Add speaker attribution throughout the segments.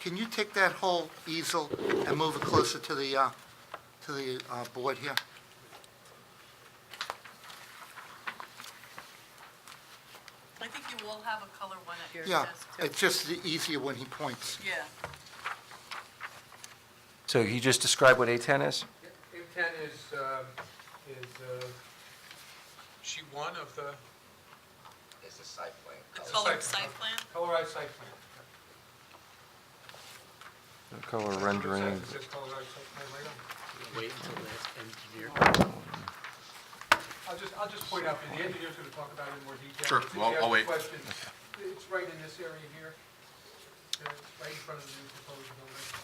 Speaker 1: Can you take that whole easel and move it closer to the, uh, to the uh, board here?
Speaker 2: I think you all have a color one at your
Speaker 1: Yeah,
Speaker 2: desk, too.
Speaker 1: it's just the easier when he points.
Speaker 2: Yeah.
Speaker 3: So you just described what A10 is?
Speaker 4: A10 is, um, is uh, sheet one of the
Speaker 5: It's a site plan.
Speaker 2: The
Speaker 4: It's a
Speaker 2: colored
Speaker 4: site
Speaker 2: site plan?
Speaker 4: colorized site plan.
Speaker 3: The Color
Speaker 4: That's what it
Speaker 3: rendering.
Speaker 4: says. It says colorized site plan right on it.
Speaker 6: Wait until that's engineered.
Speaker 4: I'll just, I'll just point out, that the engineer's going to talk about it in more detail.
Speaker 5: Sure.
Speaker 4: If you
Speaker 5: Well,
Speaker 4: have
Speaker 5: I'll wait.
Speaker 4: questions, It's right in this area here, uh, right in front of the new proposed building.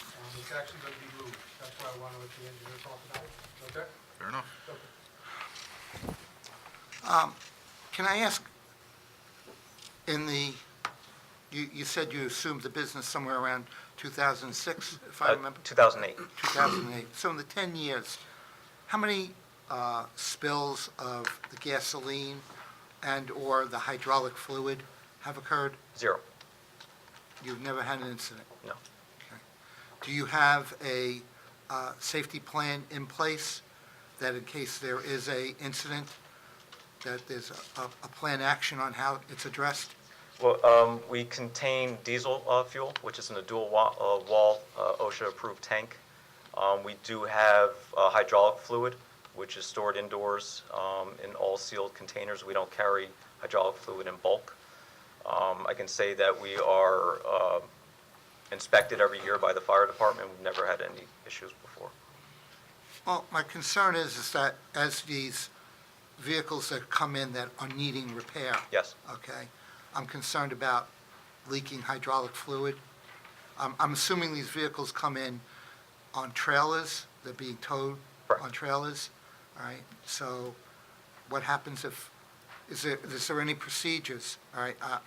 Speaker 4: Um, It's actually going to be moved, that's why I want to let the engineer talk about it, okay?
Speaker 5: Fair enough.
Speaker 4: Okay.
Speaker 1: Um, Can I ask, in the, you, you said you assumed the business somewhere around 2006, if I
Speaker 7: Uh,
Speaker 1: remember?
Speaker 7: 2008.
Speaker 1: 2008. So in the 10 years, how many uh, spills of the gasoline and/or the hydraulic fluid have occurred?
Speaker 7: Zero.
Speaker 1: You've never had an incident?
Speaker 7: No.
Speaker 1: Okay. Do you have a uh, safety plan in place that in case there is a incident, that there's a- a a plan action on how it's addressed?
Speaker 7: Well, um, we contain diesel uh, fuel, which is in a dual wa- uh, wall uh, OSHA-approved tank. Um, We do have uh, hydraulic fluid, which is stored indoors um, in all sealed containers. We don't carry hydraulic fluid in bulk. Um, I can say that we are uh, inspected every year by the fire department. We've never had any issues before.
Speaker 1: Well, my concern is, is that as these vehicles that come in that are needing repair,
Speaker 7: Yes,
Speaker 1: okay, I'm concerned about leaking hydraulic fluid. I'm, I'm assuming these vehicles come in on trailers, they're being towed on
Speaker 7: Correct.
Speaker 1: trailers, all right? So what happens if, is there, is there any procedures? All right, uh,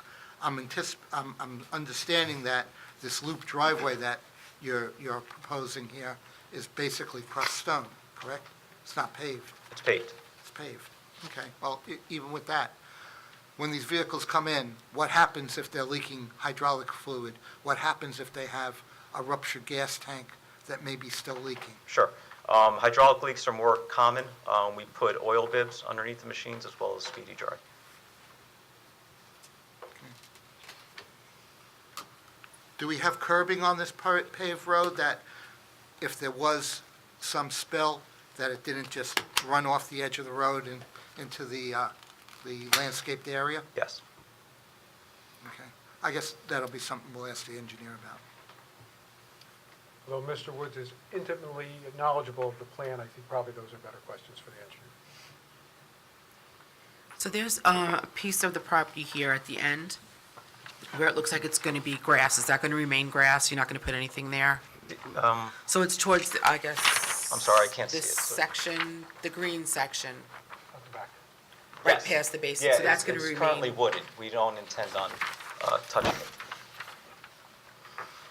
Speaker 1: I'm anticip, I'm, I'm understanding that this loop driveway that you're, you're proposing here is basically crushed stone, correct? It's not paved.
Speaker 7: it's paved.
Speaker 1: It's paved. Okay, well, e- even with that, when these vehicles come in, what happens if they're leaking hydraulic fluid? What happens if they have a ruptured gas tank that may be still leaking?
Speaker 7: Sure. Um, Hydraulic leaks are more common. Um, We put oil bibs underneath the machines as well as speedy dry.
Speaker 1: Do we have curbing on this par- paved road that if there was some spill, that it didn't just run off the edge of the road and into the, uh, the landscaped area?
Speaker 7: Yes.
Speaker 1: Okay, I guess that'll be something we'll ask the engineer about.
Speaker 4: Although Mr. Woods is intimately knowledgeable of the plan, I think probably those are better questions for the engineer.
Speaker 8: So there's uh, a piece of the property here at the end where it looks like it's going to be grass. Is that going to remain grass? You're not going to put anything there?
Speaker 7: Um,
Speaker 8: So it's towards, the I guess...
Speaker 7: I'm sorry, I can't see it,
Speaker 8: This
Speaker 7: so-
Speaker 8: section, the green section,
Speaker 4: At the back.
Speaker 8: right
Speaker 7: Yes.
Speaker 8: past the basin.
Speaker 7: Yeah,
Speaker 8: So
Speaker 7: it's-
Speaker 8: that's going to
Speaker 7: It's currently
Speaker 8: remain...
Speaker 7: wooded. We don't intend on uh, touching it.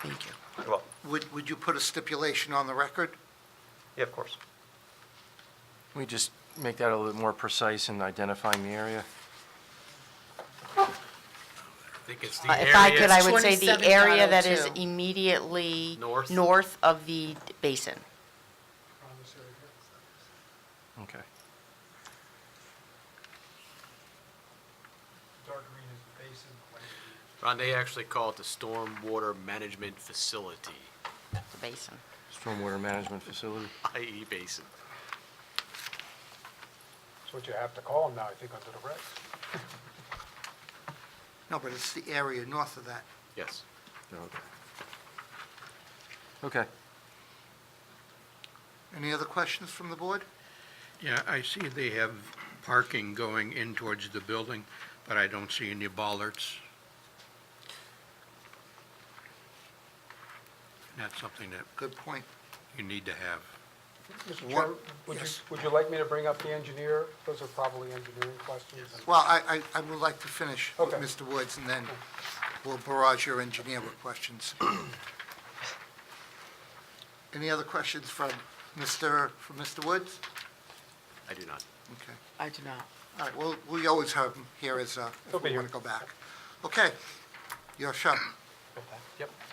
Speaker 8: Thank you.
Speaker 7: Well,
Speaker 1: Would, would you put a stipulation on the record?
Speaker 7: yeah, of course.
Speaker 3: We just make that a little more precise in identifying the area.
Speaker 6: I think it's the
Speaker 9: Uh, If I could, I
Speaker 6: area
Speaker 9: would say the area that is
Speaker 8: 27.02.
Speaker 9: immediately
Speaker 6: North.
Speaker 9: north of the basin.
Speaker 4: On this area here.
Speaker 3: Okay.
Speaker 4: Dark green is the basin, the light green is
Speaker 6: Ron, they actually call it the stormwater management facility,
Speaker 9: The basin.
Speaker 3: Stormwater management facility.
Speaker 6: i.e. basin.
Speaker 4: That's what you have to call them now, I think, under the regs.
Speaker 1: No, but it's the area north of that.
Speaker 6: Yes.
Speaker 3: Okay. Okay.
Speaker 1: Any other questions from the board?
Speaker 10: Yeah, I see they have parking going in towards the building, but I don't see any bollards. And That's something that
Speaker 1: Good point.
Speaker 10: you need to have.
Speaker 4: Mr.
Speaker 1: What-
Speaker 4: Chairman, would you,
Speaker 1: yes.
Speaker 4: would you like me to bring up the engineer? Those are probably engineering questions.
Speaker 1: Well, I, I, I would like to finish with
Speaker 4: Okay.
Speaker 1: Mr. Woods, and then we'll barrage your engineer with questions. Any other questions from Mr., from Mr. Woods?
Speaker 6: I do not.
Speaker 1: Okay.
Speaker 8: I do not.
Speaker 1: All right, well, we always have him here as, uh,
Speaker 4: He'll
Speaker 1: if
Speaker 4: be
Speaker 1: we
Speaker 4: here.
Speaker 1: want to go back. Okay, your show.
Speaker 4: Yep.